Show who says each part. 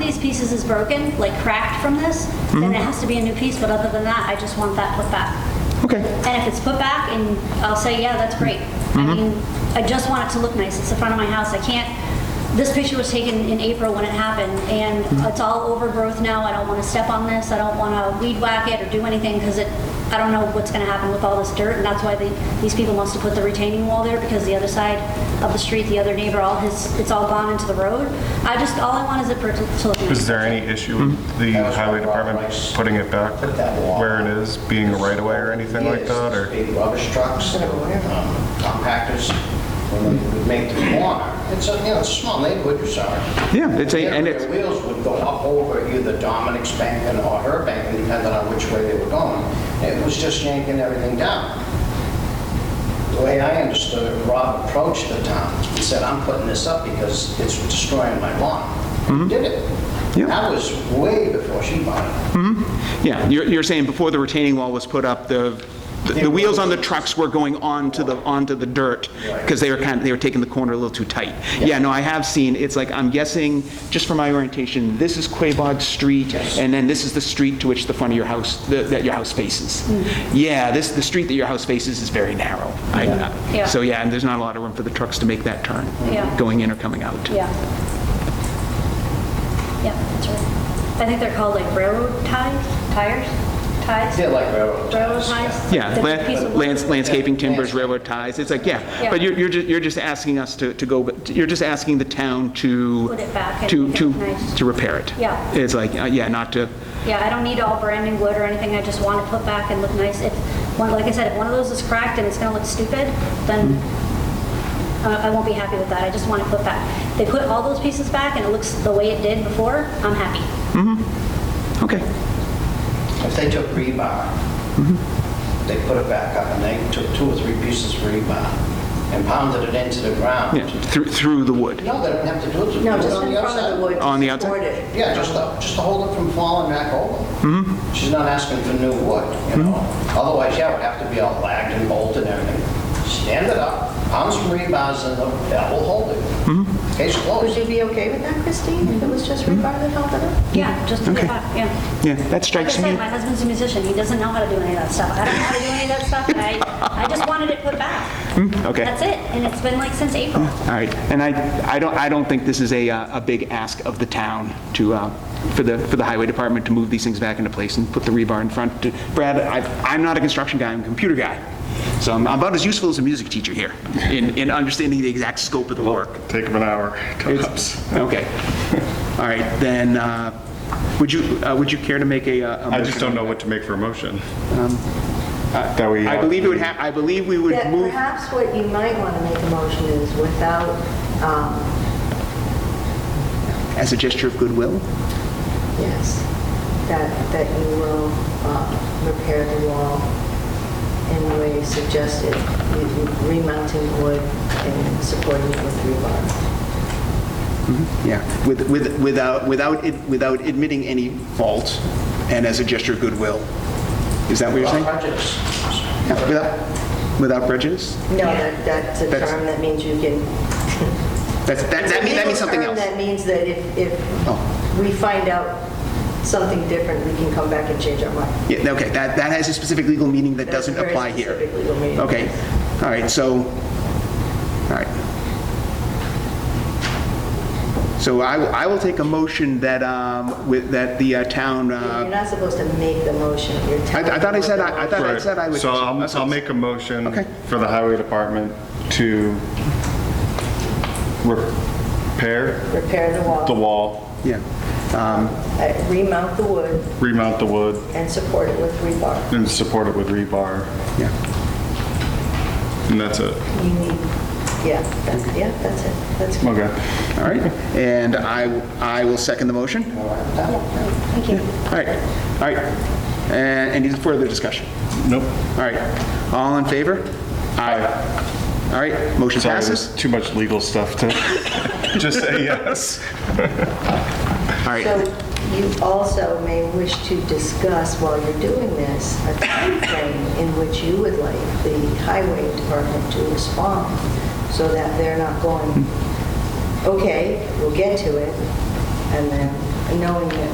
Speaker 1: pieces is broken, like cracked from this, then it has to be a new piece, but other than that, I just want that put back.
Speaker 2: Okay,
Speaker 1: And if it's put back, and I'll say, yeah, that's great. I mean, I just want it to look nice. It's the front of my house. I can't, this picture was taken in April when it happened, and it's all overgrowth now. I don't want to step on this. I don't want to weed whack it or do anything, because it, I don't know what's going to happen with all this dirt, and that's why they, these people must have put the retaining wall there, because the other side of the street, the other neighbor, all his, it's all gone into the road. I just, all I want is it for it to to look
Speaker 3: Is
Speaker 1: nice.
Speaker 3: there any issue
Speaker 2: Hmm?
Speaker 3: with the
Speaker 4: That was
Speaker 3: highway
Speaker 4: my problem.
Speaker 3: department putting it back
Speaker 4: Put that wall.
Speaker 3: where it is, being a right-of-way or anything like
Speaker 4: Yes,
Speaker 3: that, or?
Speaker 4: Big rubbish trucks, um, compactors, when they would make the corner. It's a, you know, it's a small neighborhood, you're sorry.
Speaker 2: Yeah, it's a- and it's-
Speaker 4: Their wheels would go up over either Dominic's bank and or her bank, depending on which way they were going. It was just yanking everything down. The way I understood it, Rob approached the town and said, "I'm putting this up because it's destroying my lawn." Did it.
Speaker 2: Mm-hmm. Yeah.
Speaker 4: That was way before she bought it.
Speaker 2: yeah, you're, you're saying before the retaining wall was put up, the, the wheels on the trucks were going onto the, onto the dirt, because they were kind of, they were taking the corner a little too tight. Yeah, no, I have seen, it's like, I'm guessing, just from my orientation, this is Quabog Street, and then this is the street to which the front of your house, the- that your house faces. Yeah, this, the street that your house faces is very narrow. I-
Speaker 1: Mm-hmm.
Speaker 2: uh,
Speaker 1: Yeah.
Speaker 2: So, yeah, and there's not a lot of room for the trucks to make that turn,
Speaker 1: Yeah.
Speaker 2: going in or coming out.
Speaker 1: Yeah. Yeah, that's right. I think they're called like railroad ties, tires, ties?
Speaker 4: Yeah, like railroad
Speaker 1: Railroad
Speaker 4: ties,
Speaker 1: ties?
Speaker 2: Yeah,
Speaker 1: That's a
Speaker 2: la-
Speaker 1: piece of
Speaker 2: lands-
Speaker 1: wood.
Speaker 2: landscaping, timbers, railroad ties, it's like, yeah, but you're, you're just, you're just asking us to, to go, you're just asking the town to.
Speaker 1: Put it back and
Speaker 2: To,
Speaker 1: make it
Speaker 2: to,
Speaker 1: nice.
Speaker 2: to repair it.
Speaker 1: Yeah.
Speaker 2: It's like, uh, yeah, not to,
Speaker 1: Yeah, I don't need all brand new wood or anything, I just want it put back and look nice. If, one, like I said, if one of those is cracked and it's gonna look stupid, then
Speaker 2: Mm-hmm.
Speaker 1: I I won't be happy with that, I just want it put back. They put all those pieces back and it looks the way it did before, I'm happy.
Speaker 2: okay,
Speaker 4: If they took rebar,
Speaker 2: Mm-hmm.
Speaker 4: they put it back up, and they took two or three pieces of rebar and pounded it into the ground.
Speaker 2: yeah, through, through the wood.
Speaker 4: No, they don't have to do it.
Speaker 5: No,
Speaker 4: do it
Speaker 5: just
Speaker 4: on
Speaker 5: in
Speaker 4: the
Speaker 5: front
Speaker 4: outside.
Speaker 5: of the wood.
Speaker 2: On the outside?
Speaker 5: Support it.
Speaker 4: Yeah, just to, just to hold it from falling back
Speaker 2: Mm-hmm.
Speaker 4: over. She's not asking for new wood, you know? Otherwise, yeah, it would have to be all lagged and bolted and everything. Stand it up, pound some rebars in the, that will hold
Speaker 2: Mm-hmm.
Speaker 4: it. Case
Speaker 5: Would
Speaker 4: closed.
Speaker 5: you be okay with that, Christine, if it was just rebar that held it
Speaker 2: Mm-hmm.
Speaker 5: up?
Speaker 1: Yeah, just put
Speaker 2: Okay.
Speaker 1: it back, yeah.
Speaker 2: Yeah, that
Speaker 1: Like I
Speaker 2: strikes
Speaker 1: said,
Speaker 2: me.
Speaker 1: my husband's a musician, he doesn't know how to do any of that stuff. I don't know how to do any of that stuff, and I, I just wanted it put back.
Speaker 2: Hmm, okay.
Speaker 1: That's it, and it's been like since April.
Speaker 2: All right, and I, I don't, I don't think this is a, uh, a big ask of the town to, uh, for the, for the highway department to move these things back into place and put the rebar in front. Brad, I, I'm not a construction guy, I'm a computer guy, so I'm about as useful as a music teacher here in, in understanding the exact scope of the work.
Speaker 3: Take them an hour,
Speaker 2: It's- Okay. All right, then, uh, would you, uh, would you care to make a? uh, a
Speaker 3: I just
Speaker 2: motion?
Speaker 3: don't know what to make for a motion. That
Speaker 2: Um,
Speaker 3: we.
Speaker 2: I believe it would have, I believe we would
Speaker 5: That
Speaker 2: move,
Speaker 5: perhaps what you might want to make a motion is without, um,
Speaker 2: as a gesture of goodwill?
Speaker 5: yes, that, that you will uh, repair the wall in the way you suggested, you- you remounting wood and supporting it with rebar.
Speaker 2: Yeah, with, with, without, without, it- without admitting any fault, and as a gesture of goodwill. Is that what you're saying?
Speaker 4: Prejudice.
Speaker 2: Yeah, Without, without prejudice?
Speaker 5: No, that, that's a
Speaker 2: That's-
Speaker 5: term that means you can...
Speaker 2: That's, that, that means, that means something
Speaker 5: It's a legal
Speaker 2: else.
Speaker 5: term that means that if,
Speaker 2: Oh.
Speaker 5: if we find out something different, we can come back and change our mind.
Speaker 2: Yeah, okay, that, that has a specific legal meaning that
Speaker 5: That's
Speaker 2: doesn't
Speaker 5: very
Speaker 2: apply here.
Speaker 5: specific legal meaning.
Speaker 2: Okay, all right, so, all right. So I, will- I will take a motion that, um, with, that the uh, town,
Speaker 5: You're
Speaker 2: uh,
Speaker 5: not supposed to make the motion, you're
Speaker 2: I,
Speaker 5: telling...
Speaker 2: I thought I said,
Speaker 5: them.
Speaker 2: I I thought I
Speaker 3: Right.
Speaker 2: said I would.
Speaker 3: So I'll, I'll make a motion
Speaker 2: Okay.
Speaker 3: for the highway department to repair
Speaker 5: Repair the
Speaker 3: the
Speaker 5: wall,
Speaker 3: wall,
Speaker 2: Yeah,
Speaker 5: uh, remount the wood,
Speaker 3: remount the wood,
Speaker 5: and support it with rebar.
Speaker 3: and support it with rebar,
Speaker 2: yeah,
Speaker 3: and that's it.
Speaker 5: You need, yeah, that's, yeah, that's it, that's good.
Speaker 3: Okay.
Speaker 2: all right. And I, I will second the motion.
Speaker 1: Thank you.
Speaker 2: All right, all right. And any further discussion?
Speaker 3: Nope.
Speaker 2: All right, all in favor? Aye. All right, motion
Speaker 3: Sorry,
Speaker 2: passes.
Speaker 3: there's too much legal stuff to just say yes.
Speaker 2: All right,
Speaker 5: So you also may wish to discuss while you're doing this, a timeframe in which you would like the highway department to respond so that they're not going, okay, we'll get to it, and then knowing that